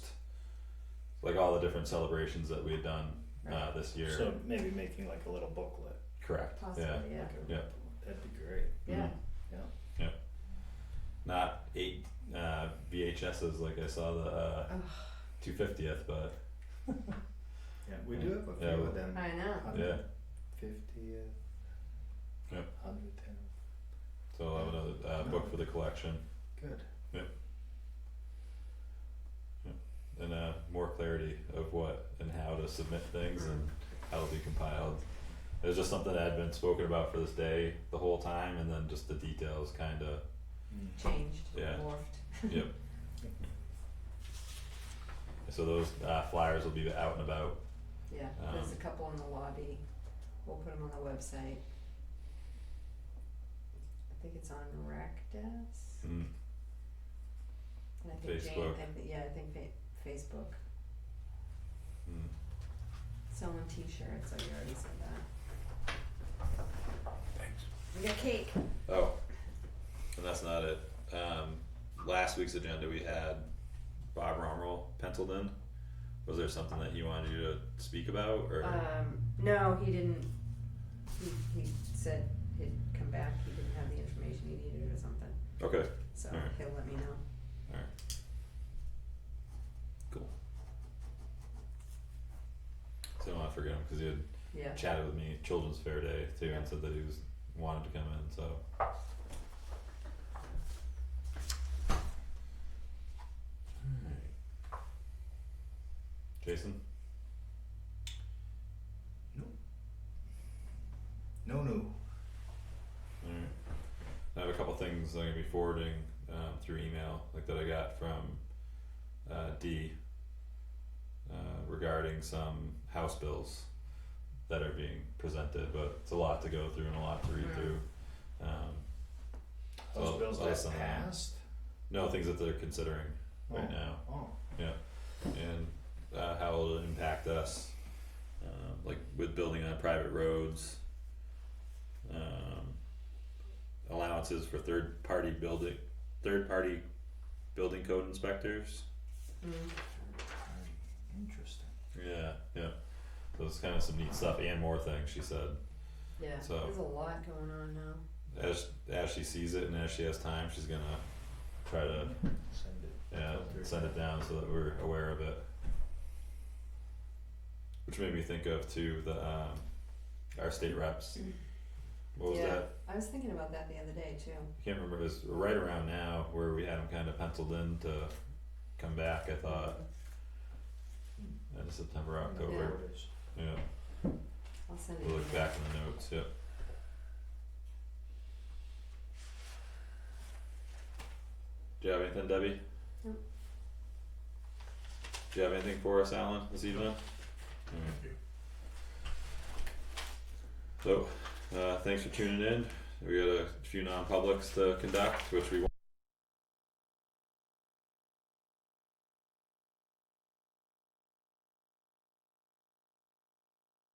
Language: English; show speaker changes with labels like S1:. S1: like all the different celebrations that we had done uh, this year. Mm-hmm.
S2: So maybe making like a little booklet.
S1: Correct.
S3: Possibly,
S1: Yeah.
S3: yeah.
S2: like a-
S1: Yeah.
S2: That'd be great.
S3: Yeah.
S1: Not eight uh, VHSs like I saw the uh,
S3: Ugh.
S1: 250th, but
S2: Yeah, we do have a
S1: Yeah,
S2: few
S1: well-
S2: of them.
S3: I know.
S1: yeah.
S2: Fiftieth.
S1: Yep.
S2: Hundred ten.
S1: So I'll have another uh, book for the collection
S2: Good.
S1: and uh, more clarity of what and how to submit things and how it'll be compiled. It was just something that had been spoken about for this day the whole time, and then just the details kind of
S3: Changed,
S1: Yeah.
S3: morphed.
S1: Yep. So those uh, flyers will be out and about.
S3: Yeah,
S1: Um,
S3: there's a couple in the lobby. We'll put them on the website. I think it's on Rectus.
S1: Mm.
S3: And I think Jane,
S1: Facebook.
S3: I thi- yeah, I think fa- Facebook.
S1: Mm.
S3: Selling t-shirts, I already said that. Thanks. We got cake.
S1: Oh, and that's not it. Um, last week's agenda we had Bob Romerl penciled in. Was there something that he wanted you to speak about, or
S3: Um, no, he didn't. He, he said he'd come back. He didn't have the information he needed or something.
S1: okay,
S3: So
S1: Alright.
S3: he'll let me know.
S1: cool. So I don't want to forget him because he had
S3: Yeah.
S1: chatted with me Children's Fair Day too
S3: Yeah.
S1: and said that he was wanted to come in. So Alright. Jason,
S2: No, no.
S1: Alright. I have a couple things I'm gonna be forwarding um through email, like that I got from uh D. Uh regarding some house bills that are being presented, but it's a lot to go through and a lot to read
S3: Mm.
S1: through. Um
S2: Those
S1: Well,
S2: bills
S1: well,
S2: that
S1: some of them.
S2: passed.
S1: no, things that they're considering right
S2: Oh.
S1: now
S2: Oh,
S1: and uh how it'll impact us. Um like with building on private roads. Um allowances for third party building, third party building code inspectors.
S3: Mm.
S2: very interesting.
S1: Yeah, yeah. So it's kind of some neat stuff and more things, she said.
S3: Yeah.
S1: So-
S3: There's a lot going on now.
S1: As as she sees it and as she has time, she's gonna try to
S2: Send it.
S1: Yeah,
S2: Filter.
S1: send it down so that we're aware of it. Which made me think of too the um our state reps. What was
S3: Yeah.
S1: that?
S3: I was thinking about that the other day too.
S1: I can't remember. It was right around now where we had them kind of penciled in to come back. I thought end of September, October.
S2: Orders.
S1: Yeah,
S3: I'll send it.
S1: we'll
S3: to
S1: look
S3: you.
S1: back in the notes. Yep. Do you have anything, Debbie?
S3: Nope.
S1: Do you have anything for us, Alan, this evening? Alright. So, uh, thanks for tuning in. We got a few non-publics to conduct, which we